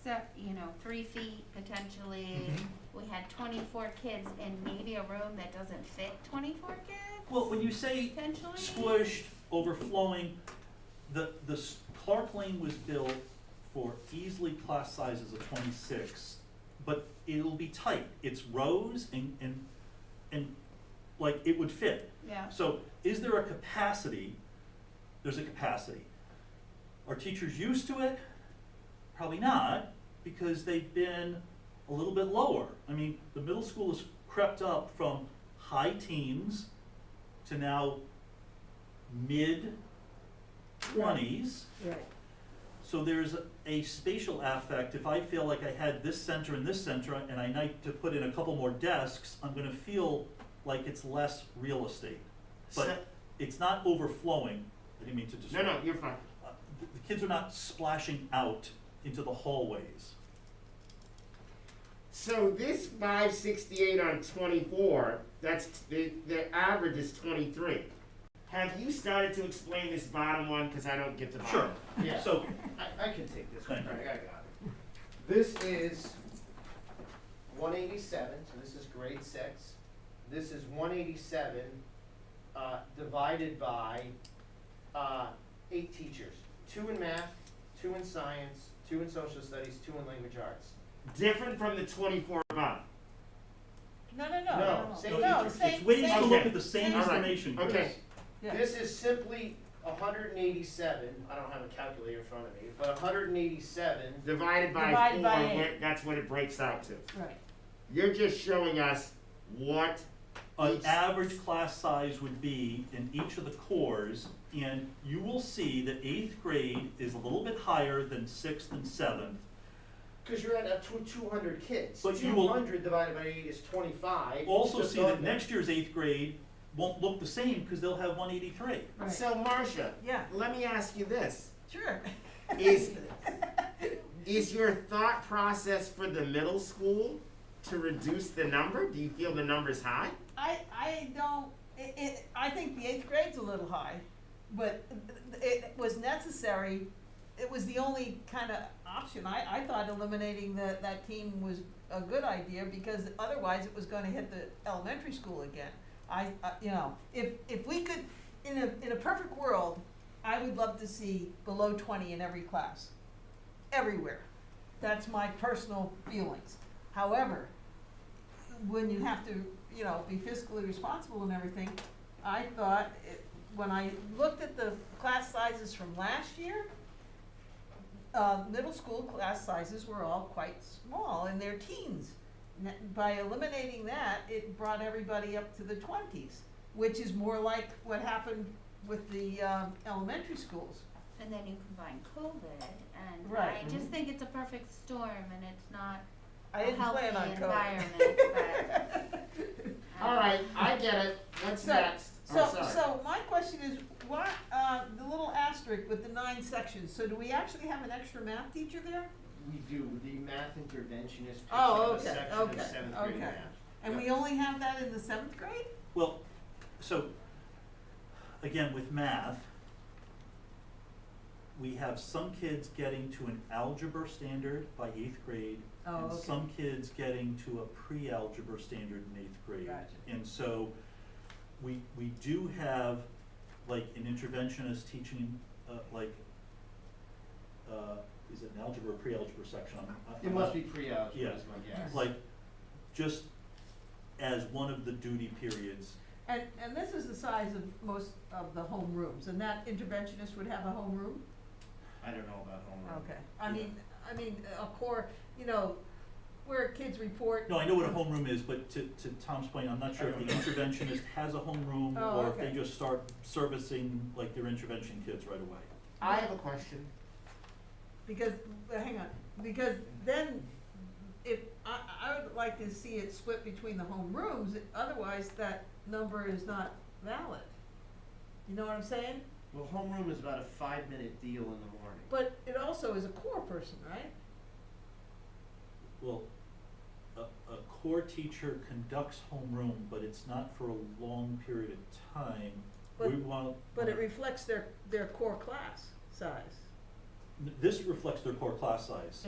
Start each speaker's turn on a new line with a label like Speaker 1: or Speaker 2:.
Speaker 1: step, you know, three feet potentially. We had twenty-four kids in maybe a room that doesn't fit twenty-four kids
Speaker 2: Well, when you say
Speaker 1: potentially.
Speaker 2: squished, overflowing, the, the s- Clark Lane was built for easily class sizes of twenty-six, but it'll be tight, it's rows and, and, and, like, it would fit.
Speaker 1: Yeah,
Speaker 2: So is there a capacity? There's a capacity. Are teachers used to it? Probably not, because they've been a little bit lower. I mean, the middle school has crept up from high teens to now mid twenties.
Speaker 3: Right,
Speaker 2: So there's a spatial affect, if I feel like I had this center and this center, and I need to put in a couple more desks, I'm gonna feel like it's less real estate. But it's not overflowing, I didn't mean to
Speaker 4: No,
Speaker 2: describe.
Speaker 4: no, you're fine.
Speaker 2: The the kids are not splashing out into the hallways.
Speaker 4: So this five sixty-eight on twenty-four, that's, the, the average is twenty-three. Have you started to explain this bottom one, cause I don't get the bottom?
Speaker 2: Sure.
Speaker 4: Yeah,
Speaker 2: So,
Speaker 4: I, I can take this one,
Speaker 2: Thank you.
Speaker 4: Craig, I got it.
Speaker 5: This is one eighty-seven, so this is grade six. This is one eighty-seven, uh, divided by, uh, eight teachers. Two in math, two in science, two in social studies, two in language arts.
Speaker 4: Different from the twenty-four bottom.
Speaker 3: no, no, no,
Speaker 5: No,
Speaker 3: Oh, no,
Speaker 5: same
Speaker 3: no, no,
Speaker 5: teacher.
Speaker 2: it's
Speaker 3: same,
Speaker 2: ways to
Speaker 3: same,
Speaker 2: look at the same
Speaker 3: same- All
Speaker 4: right.
Speaker 2: information, Chris.
Speaker 4: Okay.
Speaker 3: yeah,
Speaker 5: This is simply hundred and eighty-seven, I don't have a calculator in front of me, but hundred and eighty-seven,
Speaker 4: Divided by
Speaker 3: Divided by
Speaker 4: four,
Speaker 3: eight.
Speaker 4: where- that's what it breaks out to.
Speaker 3: right,
Speaker 4: You're just showing us what,
Speaker 2: an
Speaker 4: Each-
Speaker 2: average class size would be in each of the cores, and you will see that eighth grade is a little bit higher than sixth and seventh.
Speaker 5: cause you're at a two, two hundred kids.
Speaker 2: But you will-
Speaker 5: Two hundred divided by eight is twenty-five.
Speaker 2: Also
Speaker 5: Just
Speaker 2: see that
Speaker 5: on there.
Speaker 2: next year's eighth grade won't look the same, cause they'll have one eighty-three.
Speaker 3: right,
Speaker 4: so Marcia,
Speaker 3: yeah,
Speaker 4: let me ask you this.
Speaker 3: sure.
Speaker 4: Is, is your thought process for the middle school to reduce the number? Do you feel the number's high?
Speaker 3: I, I don't, it, it, I think the eighth grade's a little high, but it was necessary. It was the only kind of option. I, I thought eliminating the, that team was a good idea because otherwise it was gonna hit the elementary school again. I, I- you know, if, if we could, in a, in a perfect world, I would love to see below twenty in every class, everywhere. That's my personal feelings. However, when you have to, you know, be fiscally responsible and everything, I thought, it- when I looked at the class sizes from last year, uh, middle school class sizes were all quite small in their teens. N- By eliminating that, it brought everybody up to the twenties, which is more like what happened with the, um, elementary schools.
Speaker 1: and then you combine COVID and I
Speaker 3: Right.
Speaker 1: just think it's a perfect storm and it's not
Speaker 3: I didn't plan on
Speaker 1: healthy
Speaker 3: COVID.
Speaker 1: environment, um,
Speaker 4: All right, I get it. What's
Speaker 3: So-
Speaker 4: next?
Speaker 3: So,
Speaker 4: I'm sorry.
Speaker 3: so my question is, why, uh, the little asterisk with the nine sections, so do we actually have an extra math teacher there?
Speaker 5: We do, the math interventionist picks
Speaker 3: Oh,
Speaker 5: up a
Speaker 3: okay,
Speaker 5: section of
Speaker 3: okay,
Speaker 5: seventh grade math.
Speaker 3: okay. And we only have that in the seventh grade?
Speaker 2: Well, so, again, with math, we have some kids getting to an algebra standard by eighth grade,
Speaker 3: Oh,
Speaker 2: and
Speaker 3: okay.
Speaker 2: some kids getting to a pre-algebra standard in eighth grade.
Speaker 3: Gotcha.
Speaker 2: And so, we, we do have, like, an interventionist teaching, uh, like, uh, is it an algebra or pre-algebra section? I'm- I'm
Speaker 5: It
Speaker 2: not-
Speaker 5: must be pre-algebra
Speaker 2: Yeah.
Speaker 5: is my guess.
Speaker 2: Like, just as one of the duty periods,
Speaker 3: And, and this is the size of most of the home rooms, and that interventionist would have a home room?
Speaker 5: I don't know about homeroom.
Speaker 3: Okay, I mean, I mean, a core, you know, where kids report.
Speaker 2: No, I know what a homeroom is, but to, to Tom's point, I'm not sure if the interventionist has a homeroom
Speaker 3: Oh,
Speaker 2: or if they
Speaker 3: okay.
Speaker 2: just start servicing like their intervention kids right away.
Speaker 4: I have a question.
Speaker 3: Because, well, hang on, because then if, I, I would like to see it split between the home rooms, otherwise that number is not valid. You know what I'm saying?
Speaker 5: Well, homeroom is about a five-minute deal in the morning.
Speaker 3: But it also is a core person, right?
Speaker 2: Well, a, a core teacher conducts homeroom, but it's not for a long period of time. We
Speaker 3: But-
Speaker 2: want. uh,
Speaker 3: But it reflects their, their core class size.
Speaker 2: This reflects their core class size.